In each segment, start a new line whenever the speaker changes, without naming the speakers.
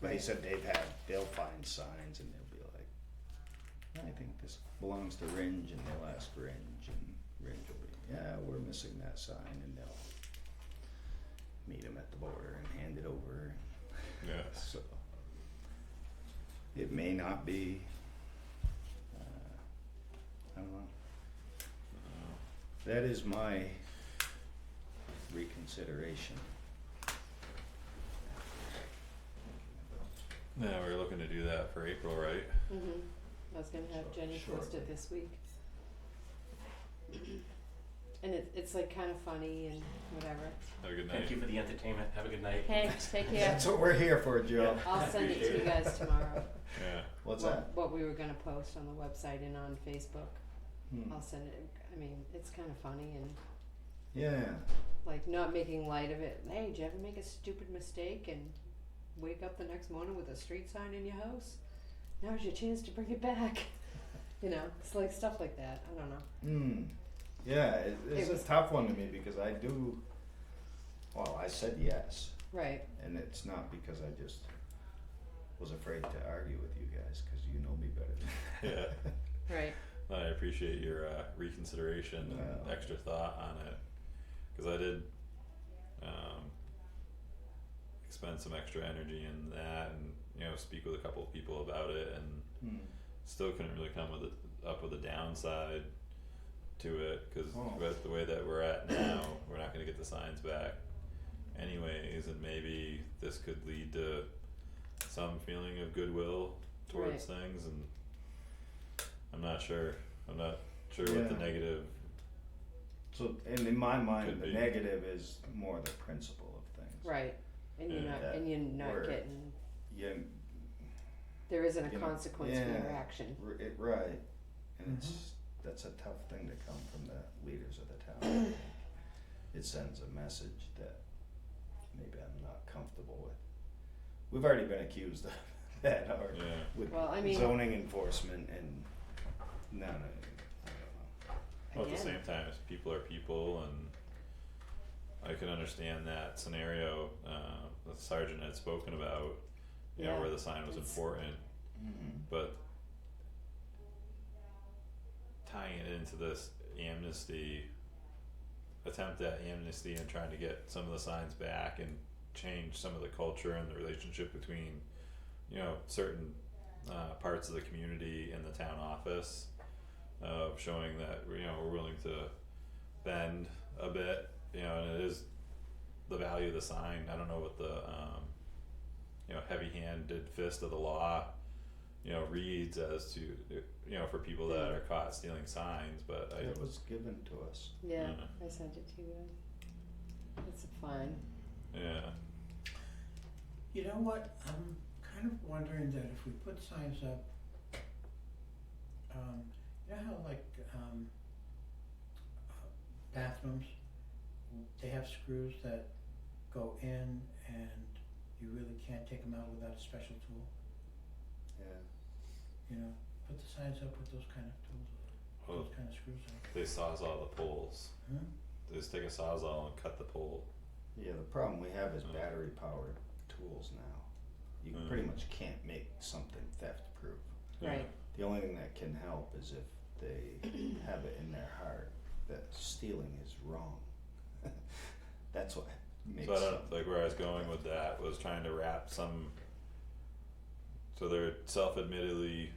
But he said they've had, they'll find signs and they'll be like, I think this belongs to Ringe and they'll ask Ringe and Ringe will be, yeah, we're missing that sign and they'll meet him at the border and hand it over.
Yeah.
So it may not be, uh, I don't know. That is my reconsideration.
Yeah, we were looking to do that for April, right?
Mhm. I was gonna have
Short-
Jenny
short.
post it this week. And it, it's like kinda funny and whatever.
Have a good night.
Thank you for the entertainment. Have a good night.
Thanks, take care.
That's what we're here for, Joe.
I'll send it to you guys tomorrow.
Yeah.
What's
what-
that?
What we were gonna post on the website and on Facebook.
Hmm.
I'll send it, I mean, it's kinda funny and
Yeah,
like not making light of it. Hey, did you ever make a stupid mistake and wake up the next morning with a street sign in your house? Now's your chance to bring it back. You know, it's like stuff like that. I don't know.
hmm, yeah, it, it's
It
a
was-
tough one to me because I do, well, I said yes,
Right,
and it's not because I just was afraid to argue with you guys, cause you know me better than
Yeah.
right.
No, I appreciate your uh, reconsideration and
Yeah.
extra thought on it, because I did um, expend some extra energy in that, and you know, speak with a couple of people about it, and
Hmm,
still couldn't really come with a, up with a downside to it, because
Oh.
with the way that we're at now, we're not going to get the signs back, anyways, and maybe this could lead to some feeling of goodwill towards things and I'm not sure. I'm not sure what the
Yeah.
negative
so, and in my mind,
Could
the
be.
negative is more the principle of things.
Right. And you're
Yeah.
not
That
and you're not
word.
getting
Yeah,
there isn't a
You know,
consequence for your
yeah.
action.
r- it, right, and it's, that's a tough thing to come from the leaders of the town. It sends a message that maybe I'm not comfortable with. We've already been accused of that, or
yeah.
with
Well, I mean-
zoning enforcement and, no, no, I
Well, at the
Again.
same time as people are people and I can understand that scenario uh that Sergeant had spoken about, you know,
Yeah,
where the sign was
it's-
important,
don't know.
but tying it into this amnesty attempt at amnesty and trying to get some of the signs back and change some of the culture and the relationship between you know certain uh, parts of the community and the town office of showing that you know we're willing to bend a bit you know and it is the value of the sign i don't know what the um, you know heavy handed fist of the law you know reads as to you know for people that are caught stealing signs but i
It was given to us.
Yeah.
Yeah.
I sent it to you guys. It's fine.
yeah
You know what, I'm kind of wondering that if we put signs up, um, you know how like, um, uh, bathrooms, they have screws that go in and you really can't take them out without a special tool,
Yeah.
you know? Put the signs up with those kind of tools,
well,
those kind of screws in,
they sawzall the poles
huh?
They just take a sawzall and cut the pole
Yeah, the problem we have is
Mm.
battery powered tools now. You
Mm.
pretty much can't make something theft proof.
Right.
The only thing that can help is if they have it in their heart that stealing is wrong. That's what makes
So I
them.
don't, like where I was going with that was trying to wrap some. So they're self-admittedly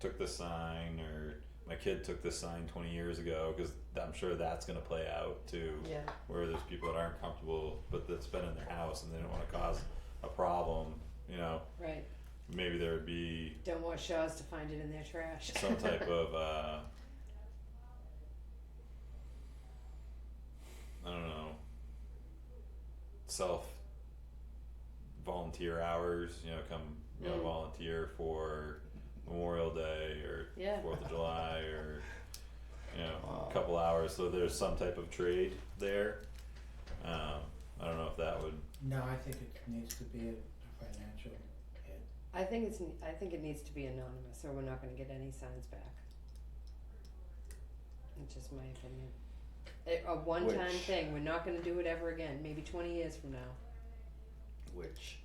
took the sign, or my kid took this sign twenty years ago, because I'm sure that's gonna play out too.
Yeah.
Where there's people that aren't comfortable, but that's been in their house and they don't want to cause a problem. You know,
Right.
maybe there would be
Don't want Shaw's to find it in their trash.
some type of uh I don't know self volunteer hours, you know, come you know,
Mm.
volunteer for Memorial Day or
Yeah.
Fourth of July or you know,
Wow.
a couple hours. So there's some type of trade there. Um, I don't know if that would
No, I think it needs to be a financial hit.
I think it's I think it needs to be anonymous or we're not gonna get any signs back. It's just my opinion. Eh, A- A one time
Which-
thing. We're not gonna do it ever again, maybe twenty years from now.
Which